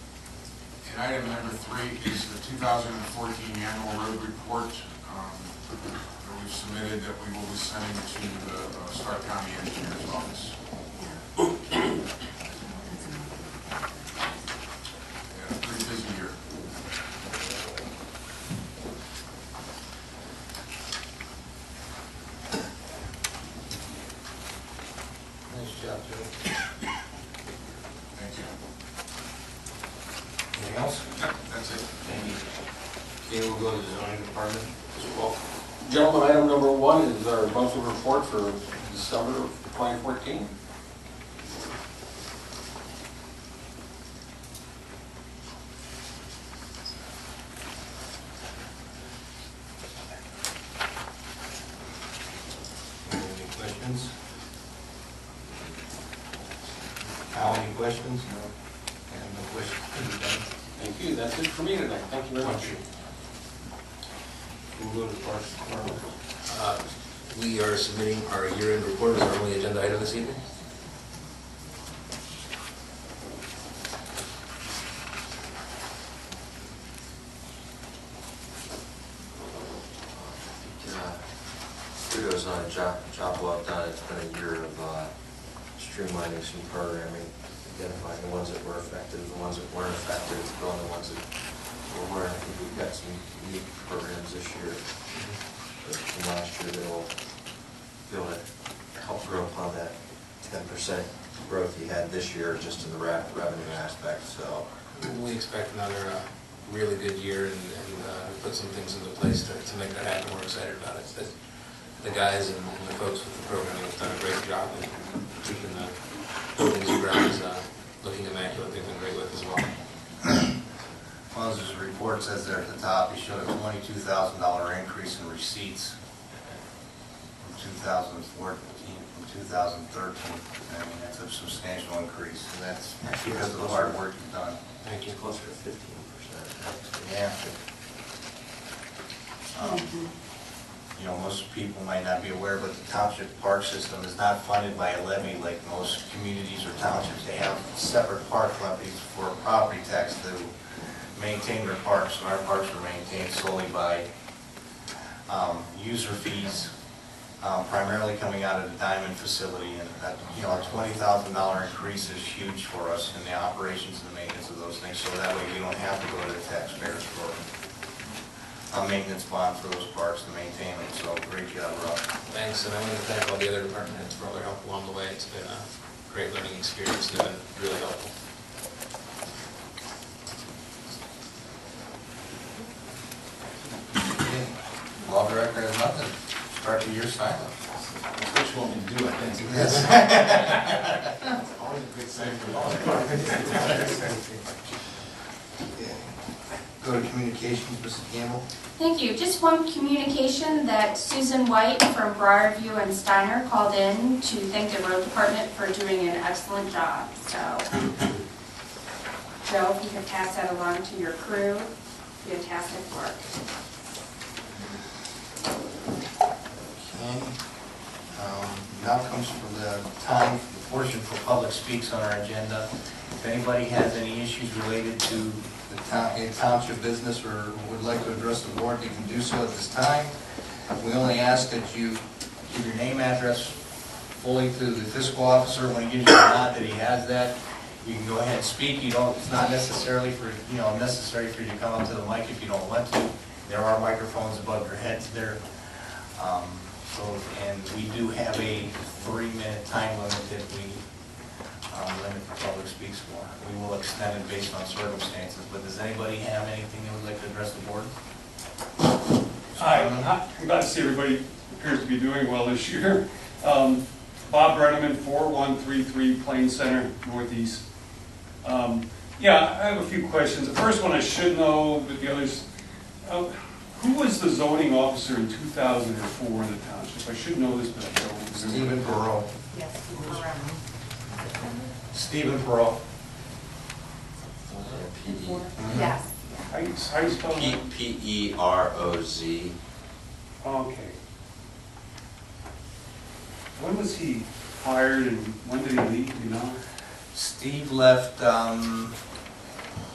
Item number three is the 2014 annual road report um, that we've submitted that we will be sending to the uh, Stark County Engineers Office. Yeah, pretty busy year. Nice job, Joe. Thank you. Anything else? Yep, That's it. Okay, we'll go to the zoning department, Mr. Wolf. Gentlemen, item number one is our monthly report for December of 2014. Any questions? Al, any questions? No. And no questions, Are you done? Thank you, that's it for me tonight, thank you very much. We'll go to Parks Department. Uh, We are submitting our year-end report as our only agenda item this evening. Yeah. Uh, Kudos on a job, job well done. It's been a year of uh, streamlining some programming, identifying the ones that were effective, the ones that weren't effective, growing the ones that were, weren't. I think we've got some unique programs this year, uh, from last year that'll be able to help grow upon that ten percent growth you had this year just in the re- revenue aspect, so. We expect another uh, really good year and and, uh, we put some things into place to to make that happen. We're excited about it. The- The guys and the folks with the program have done a great job in keeping the buildings and grounds uh, looking immaculate. They've been great with us as well. Well, as his report says there at the top, he showed a twenty-two thousand dollar increase in receipts from two thousand fourteen, from two thousand thirteen. I mean, that's a substantial increase, and that's because of the hard work you've done. Thank you. Closer to fifteen percent. Yeah. Um, You know, most people might not be aware, but the township park system is not funded by a levy like most communities or townships. They have separate park levies for property tax to maintain their parks, and our parks are maintained solely by um, user fees, um, primarily coming out of the Diamond facility. And that, you know, a twenty thousand dollar increase is huge for us in the operations and maintenance of those things. So that way we don't have to go to the taxpayers for a maintenance bond for those parks to maintain them. So great job, Rob. Thanks, and I want to thank all the other department heads for all their help along the way. It's been a great learning experience and been really helpful. Law director has nothing. Start the year silent. Which one we do, I think. Go to communications, Mr. Campbell. Thank you. Just one communication that Susan White from Briarview and Steiner called in to thank the road department for doing an excellent job, so. Joe, if you could pass that along to your crew, fantastic work. Okay. Um, Now comes for the time, the portion for public speaks on our agenda. If anybody has any issues related to the town, in township business or would like to address the board, you can do so at this time. We only ask that you give your name, address fully to the fiscal officer when he gives you a nod that he has that. You can go ahead and speak. You don't, it's not necessarily for, you know, necessary for you to come up to the mic if you don't want to. There are microphones above your heads there. Um, So, and we do have a three-minute time limit that we um, limit the public speaks for. We will extend it based on circumstances, but does anybody have anything they would like to address the board? Hi, I'm glad to see everybody appears to be doing well this year. Um, Bob Brenneman, 4133 Plain Center, Northeast. Um, Yeah, I have a few questions. The first one I should know, but the others, uh, who was the zoning officer in 2004 in the township? I should know this, but I don't. Stephen remember. Perot. Yes, correct. Stephen Perot. Yes. How you how you spell P, that? P E R O Z. Okay. When was he hired and when did he leave, you know? Steve left, um,